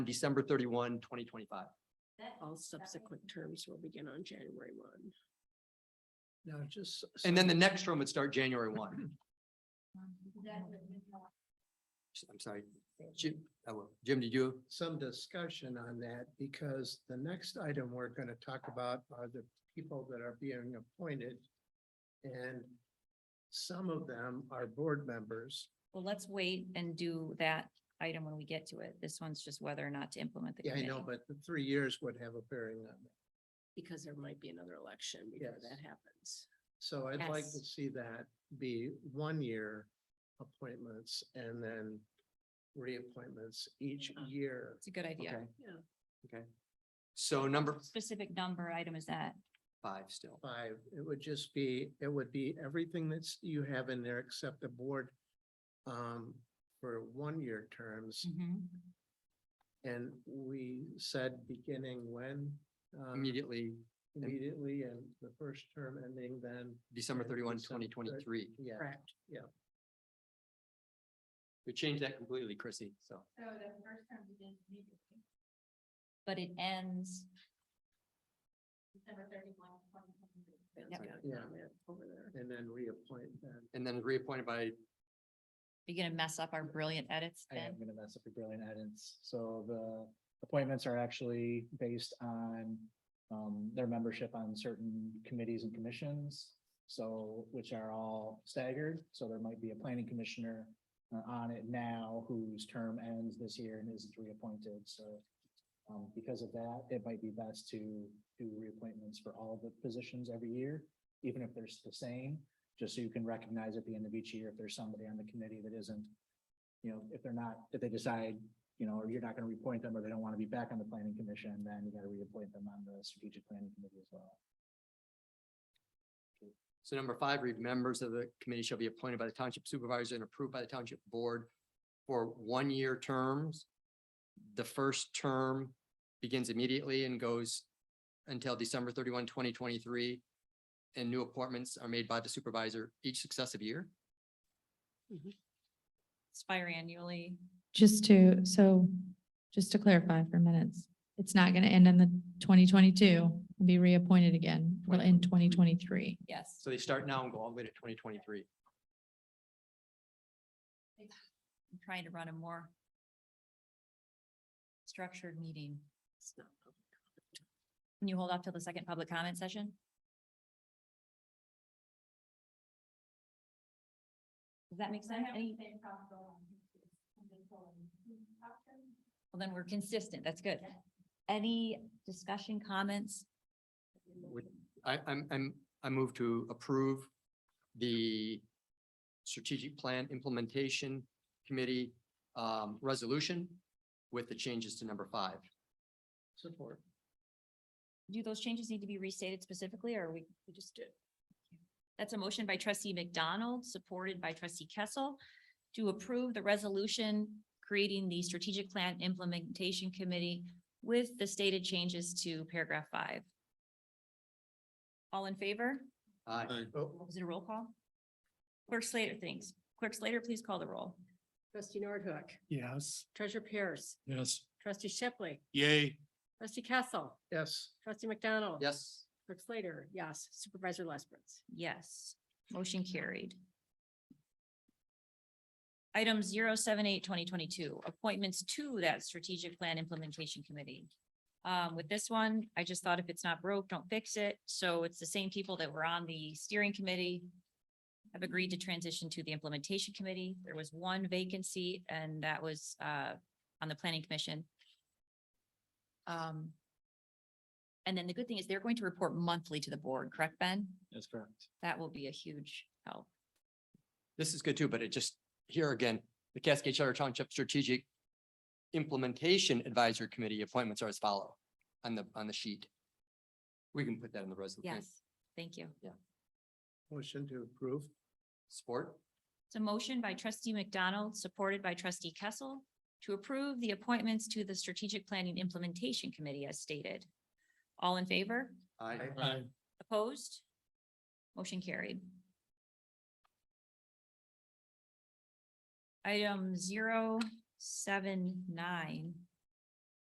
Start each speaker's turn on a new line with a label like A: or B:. A: December 31, 2025.
B: All subsequent terms will begin on January one.
C: Now, just. s-
A: And then the
C: some-
A: next term would start January one. I'm sorry, Jim, I will. Jim, did you?
C: Some discussion on that because the next item we're going to talk about are the people that are being appointed. And some of them are board members.
D: Well, let's wait and do that item when we get to it. This one's just whether or not to implement the
C: Yeah, I
D: committee.
C: know, but the three years would have a bearing on that.
B: Because there might be another election before
C: Yes.
B: that happens.
C: So I'd like to
D: Yes.
C: see that be one-year appointments and then reappointments each
B: Yeah.
C: year.
D: It's a good
A: Okay.
D: idea.
A: Okay. So number
D: Specific number item is that?
A: five still.
C: Five, it would just be, it would be everything that's you have in there except the board um, for one-year terms.
D: Mm-hmm.
C: And we said beginning when? um,
A: Immediately,
C: Immediately and the first term ending then,
A: December
C: Yeah,
A: 31,
C: December
A: 2023.
C: thir- yeah.
B: Correct.
A: We changed that completely, Chrissy, so.
D: But it ends,
B: Ben's
D: Yep.
B: got
C: Yeah.
B: comment Over there.
C: And then reappoint then.
A: And then reappointed by,
D: you're gonna mess up our brilliant edits
E: I am
D: then?
E: gonna mess up your brilliant edits. So the appointments are actually based on um, their membership on certain committees and commissions. So, which are all staggered, so there might be a planning commissioner uh, on it now whose term ends this year and isn't reappointed, so. Um, because of that, it might be best to do reappointments for all the positions every year, even if they're s- the same. Just so you can recognize at the end of each year if there's somebody on the committee that isn't you know, if they're not, if they decide, you know, or you're not gonna reappoint them, or they don't wanna be back on the planning commission, then you gotta reappoint them on the strategic planning committee as well.
A: so number five, read members of the committee shall be appointed by the township supervisor and approved by the township board for one-year terms. The first term begins immediately and goes until December 31, 2023, And new appointments are made by the supervisor each successive year.
D: Expire annually.
F: Just to, so, just to clarify for minutes, it's not gonna end in the twenty twenty-two and be reappointed again, it'll end twenty twenty-three.
D: Yes.
A: So they start now and go all the way to twenty twenty-three.
D: I'm trying to run a more structured meeting.
B: It's not public comment.
D: Can you hold off till the second public comment session? Does that make sense? Any- Well, then we're consistent. That's good. Any discussion, comments?
A: Would, I, I'm, I'm, I move to approve the strategic plan implementation committee um, resolution with the changes to number five.
C: Support.
D: Do those changes need to be restated specifically or are we?
B: We just did.
D: That's a motion by trustee McDonald, supported by trustee Kessel, to approve the resolution creating the strategic plan implementation committee with the stated changes to paragraph five. All in favor?
A: Aye.
C: Oh,
D: Is it a roll call? Clerk Slater, thanks. Clerk Slater, please call the roll.
B: Trustee Nordhook,
G: Yes.
B: treasurer Pierce,
G: Yes.
B: trustee Shipley,
G: Yay.
B: trustee Castle,
C: Yes.
B: trustee McDonald.
A: Yes,
B: Clerk Slater, yes. Supervisor Lesperance.
D: Yes, motion carried. Item 078-2022 appointments to that strategic plan implementation committee. Um, with this one, I just thought if it's not broke, don't fix it. So it's the same people that were on the steering committee. Have agreed to transition to the implementation committee. There was one vacancy and that was, uh, on the planning commission. Um. And then the good thing is they're going to report monthly to the board, correct, Ben?
E: That's correct.
D: that will be a huge help.
A: this is good too, but it just, here again, the Cascade Charter Township Strategic Implementation Advisory Committee appointments are as follow on the, on the sheet. We can put that in the resolution.
D: Yes, thank you.
C: Motion to approve.
A: Support?
D: It's a motion by trustee McDonald, supported by trustee Kessel, to approve the appointments to the Strategic Planning Implementation Committee as stated. All in favor?
A: Aye.
D: Opposed? Motion carried. Item zero seven nine